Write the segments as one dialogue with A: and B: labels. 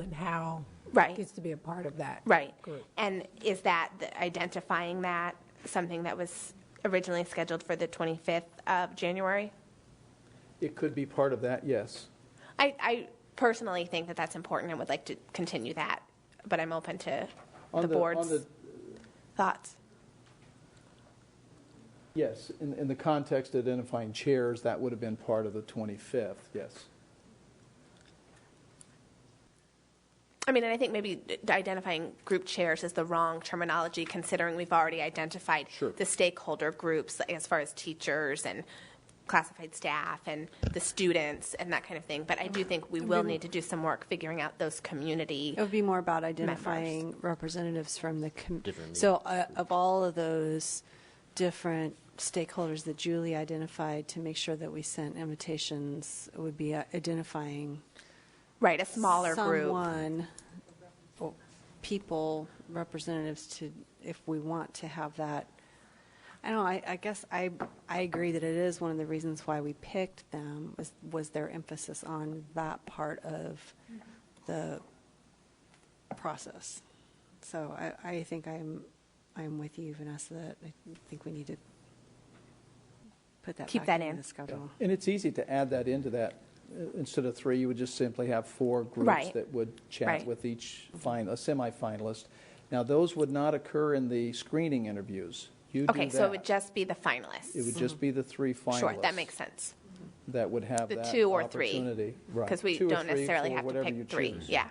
A: and how
B: Right.
A: gets to be a part of that.
B: Right.
A: group.
B: And is that, the- identifying that, something that was originally scheduled for the 25th of January?
C: It could be part of that, yes.
B: I, I personally think that that's important and would like to continue that, but I'm open to
C: On
B: the
C: on
B: board's
C: the-
B: thoughts.
C: Yes, in, in the context of identifying chairs, that would have been part of the 25th, yes.
B: I mean, and I think maybe identifying group chairs is the wrong terminology, considering we've already identified
C: Sure.
B: the stakeholder groups as far as teachers and classified staff and the students and that kind of thing. But I do think we will need to do some work figuring out those community.
D: It would be more about identifying representatives from the, com- so uh, of all of those different stakeholders that Julie identified to make sure that we sent invitations, it would be uh, identifying
B: Right, a smaller group.
D: someone, or people, representatives to, if we want to have that. I don't know, I, I guess I, I agree that it is one of the reasons why we picked them was, was their emphasis on that part of the process. So I, I think I'm, I'm with you, Vanessa, that I think we need to put that
B: Keep
D: back
B: that
D: into
B: in.
D: the schedule.
C: And it's easy to add that into that. Uh, Instead of three, you would just simply have four groups
B: Right.
C: that would chat
B: Right.
C: with each fin, a semifinalist. Now, those would not occur in the screening interviews. You do
B: Okay, so it
C: that.
B: would just be the finalists.
C: It would just be the three finalists.
B: Sure, that makes sense.
C: That would have
B: The
C: that
B: two or three.
C: opportunity. Right.
B: Because we
C: Two or
B: don't
C: three,
B: necessarily
C: four,
B: have to
C: whatever you
B: pick three.
C: choose.
B: Yeah,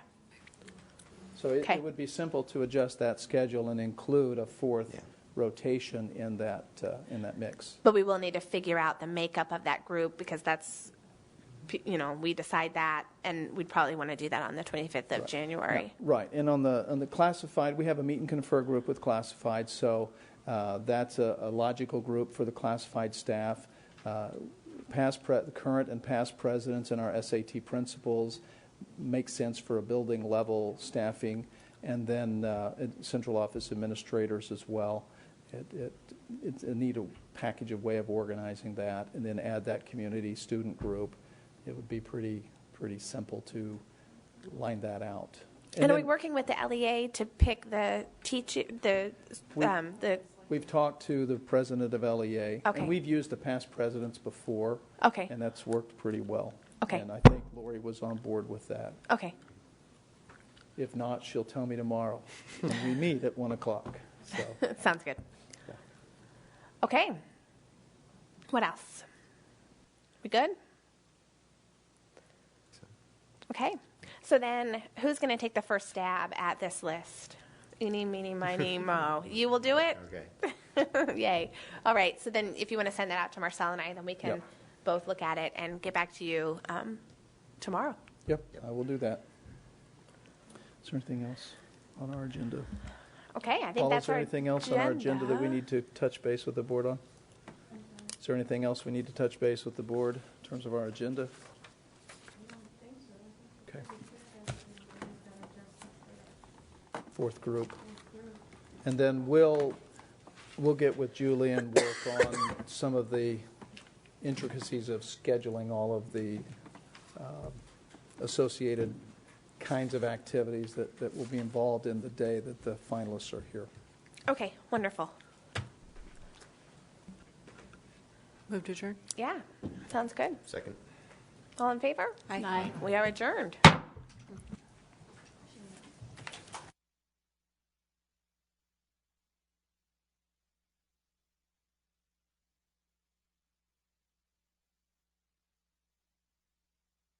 C: So it-
B: Okay.
C: it would be simple to adjust that schedule and include a fourth rotation in that, uh, in that mix.
B: but we will need to figure out the makeup of that group because that's, p- you know, we decide that and we'd probably want to do that on the 25th of January.
C: Right, and on the, on the classified, we have a meet and confer group with classified, so uh, that's a a logical group for the classified staff. Uh, Past, pre- current and past presidents and our SAT principals make sense for a building level staffing, and then uh, and central office administrators as well. It- it- It's a neat package of way of organizing that, and then add that community student group. It would be pretty, pretty simple to line that out.
B: And are we
C: then-
B: working with the LEA to pick the teach, the,
C: We-
B: um, the,
C: We've talked to the president of LEA.
B: Okay.
C: And we've used the past presidents before.
B: Okay.
C: And that's worked pretty well.
B: Okay.
C: And I think Lori was on board with that.
B: okay,
C: If not, she'll tell me tomorrow. And we meet at 1 o'clock, so.
B: sounds good. Okay. What else? We good? Okay. So then, who's going to take the first stab at this list? Eeny, meeny, miny, mo. You will do it?
E: Okay.
B: Yay. All right. So then, if you want to send that out to Marcel and I, then we can
C: Yep.
B: both look at it and get back to you um, tomorrow.
C: Yep, I will do that. Is there anything else on our agenda?
B: Okay. I think
C: Paul,
B: that's
C: is there
B: our
C: anything else on our agenda that we need to touch base with the board on? Is there anything else we need to touch base with the board in terms of our agenda? Okay. Fourth group. And then we'll, we'll get with Julie and work on some of the intricacies of scheduling all of the um, associated kinds of activities that, that will be involved in the day that the finalists are here.
B: Okay. Wonderful.
D: Move to adjourn?
B: Yeah. Sounds good.
E: Second.
B: All in favor?
D: Aye.
B: We are adjourned.